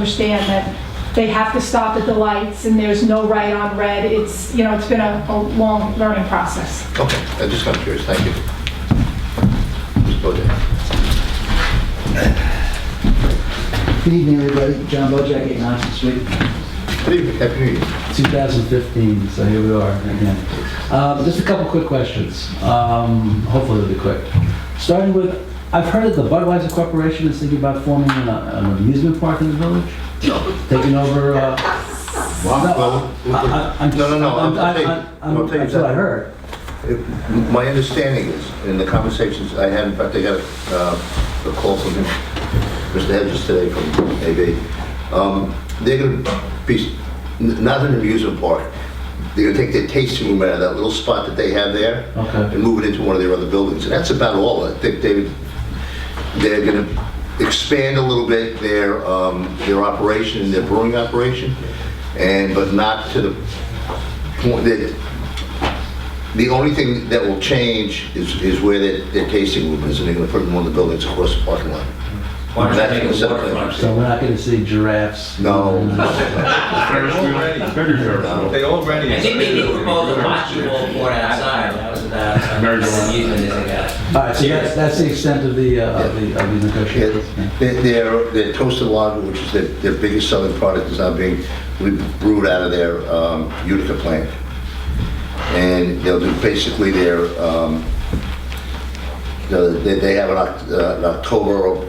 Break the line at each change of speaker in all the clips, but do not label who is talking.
understand that they have to stop at the lights and there's no right on red. It's, you know, it's been a, a long learning process.
Okay, I just got curious, thank you. Just go there.
Good evening, everybody. John Bojack, 8 Knox Street,
Good evening, happy New Year.
2015, so here we are again. Um, Just a couple quick questions. Um, Hopefully they'll be quick. Starting with, I've heard that the Budweiser Corporation is thinking about forming an uh, an amusement park in the village? Taking over, uh,
Well,
I- I- I'm just...
No, no, no, I'm
I'm- I-
saying-
I-
I'm
I'm-
saying
That's what I
that-
heard.
it- my understanding is, in the conversations I had, in fact, I got uh, a call from him, Mr. Hedges today from AV, um, they're going to be, n- not an amusement park, they're going to take their tasting room out of that little spot that they have there
Okay.
and move it into one of their other buildings. And that's about all. I think they, they're going to expand a little bit their, um, their operation, their brewing operation, and, but not to the point that, the only thing that will change is, is where their, their tasting room is, and they're going to put it in one of the buildings across the parking lot.
Why don't
That's
you
gonna
make a
set the-
waterfront?
So we're not going to see giraffes?
No,
They already.
I think maybe we're both watching all board outside, that was about, uh,
Very good.
amusement is a guy.
All right, so that's that's the extent of the, uh, of the of the
Yeah,
negotiations? Yeah.
their- their, their toasted lager, which is their, their biggest selling product, is now being brewed out of their um, Utica plant. And they'll do basically their, um, the- they they have an Oct- uh, an October or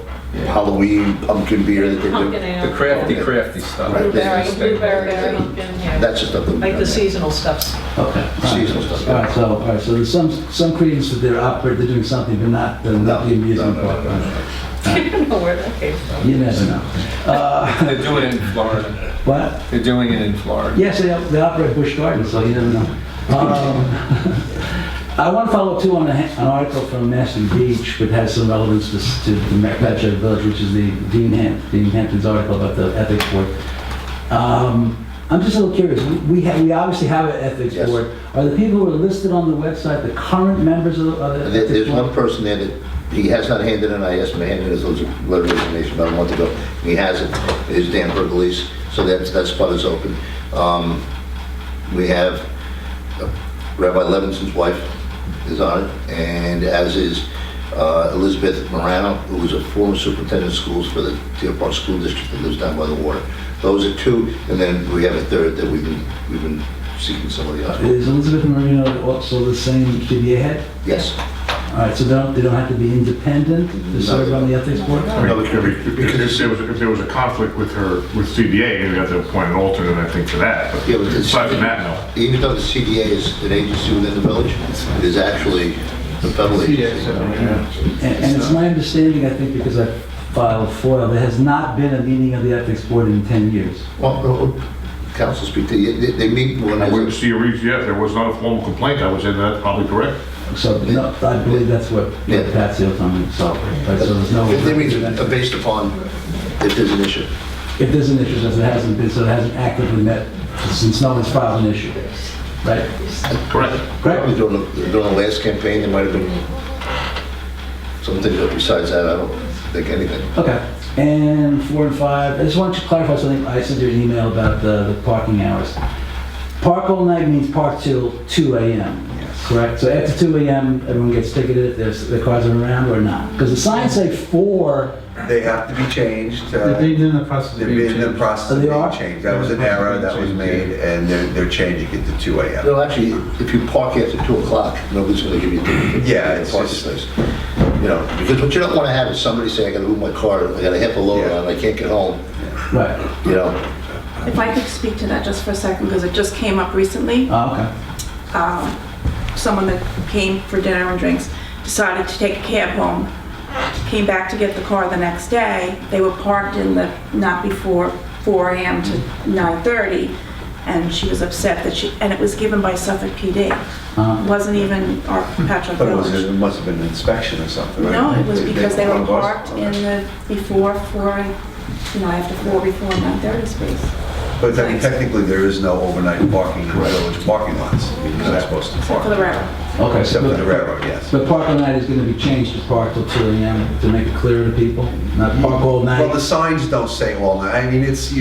Halloween pumpkin beer that they do.
Pumpkin ale.
The crafty, crafty stuff.
Right.
Blueberry, blueberry, pumpkin, yeah.
That's the stuff that we...
Like the seasonal stuffs.
Okay.
Seasonal stuff, yeah.
All right, so, all right, so there's some, some credence that they're operating, they're doing something, but not, the- not the
No,
amusement
no, no,
park.
no, no.
I don't know where that came from.
You never know. Uh,
They're doing it in Florida.
What?
They're doing it in Florida.
Yes, they, they operate Bush Gardens, so you never know. Um, I want to follow up too on a- an article from Mashpee Beach, which has some relevance to s- to the Patchogue Village, which is the Dean Ham, Dean Hampton's article about the ethics board. Um, I'm just a little curious, we, ha- we obviously have an ethics
Yes.
board. Are the people who are listed on the website the current members of the of the
There-
ethics board?
There's one person there that, he has not handed in, I asked him to hand in his letter of resignation about a month ago, he hasn't, is Dan Burgleys, so that's, that spot is open. Um, We have Rabbi Levinson's wife is on it, and as is uh, Elizabeth Morano, who was a former superintendent of schools for the Deer Park School District that lives down by the water. Those are two, and then we have a third that we've been, we've been seeking somebody else.
Is Elizabeth Marino also the same PBA head?
Yes.
All right, so they don't, they don't have to be independent to serve on the ethics board?
No, it's gonna be-
If there was, if there was a conflict with her, with CBA, you'd have to appoint an alternate, I think, for that. But
Yeah, but it's-
Aside from that, no.
Even though the CDA is an agency within the village, it is actually the federal agency.
And, and it's my understanding, I think, because I filed FOIL, there has not been a meeting of the ethics board in 10 years.
Well, no, Council speak, they, they- they meet when
I wouldn't
there's,
see a reason, yeah, if there was not a formal complaint, I would say that's probably correct.
So no, I believe that's what
Yeah.
Patsy O'Tonnell saw. Right, so there's no...
they meet uh, based upon if there's an issue.
If there's an issue, since it hasn't been, so it hasn't actively met since no one's filed an issue. Right?
Correct.
Correct?
Probably during, the- during the last campaign, there might have been something, but besides that, I don't think anything.
Okay, and four and five, I just want to clarify something, I sent you an email about the, the parking hours. Park all night means park till two AM, correct? So after two AM, everyone gets ticketed if there's, the cars are around or not? Because the signs say four,
They have to be changed. uh,
They're in the process of
They're
being
in the
changed.
process
Oh,
of
they are?
being changed. That was an error that was made, and they're, they're changing it to 2 AM.
No, actually, if you park after 2 o'clock, nobody's going to give you a ticket.
Yeah, it's
Parking
just-
space. You know, because what you don't want to have is somebody saying, I got to move my car, I got a half a load
Yeah.
on, I can't get home,
right,
you know?
If I could speak to that just for a second, because it just came up recently.
oh, okay,
Um, Someone that came for dinner and drinks decided to take a cab home, came back to get the car the next day. They were parked in the, not before 4 AM to 9:30, and she was upset that she, and it was given by Suffolk PD.
Uh-huh.
Wasn't even our Patrick
But it was,
Village.
it must have been an inspection or something, right?
No, it was because they were
called
parked
us.
in the, before 4, you know, after 4, before 9:30 space.
But then technically, there is no overnight parking in the village parking lots. You're not supposed to
for the
park,
railroad.
Okay.
except for the railroad, yes.
But park all night is going to be changed to park till 2 AM to make it clear to people, not park all night.
Well, the signs don't say all night. I mean, it's,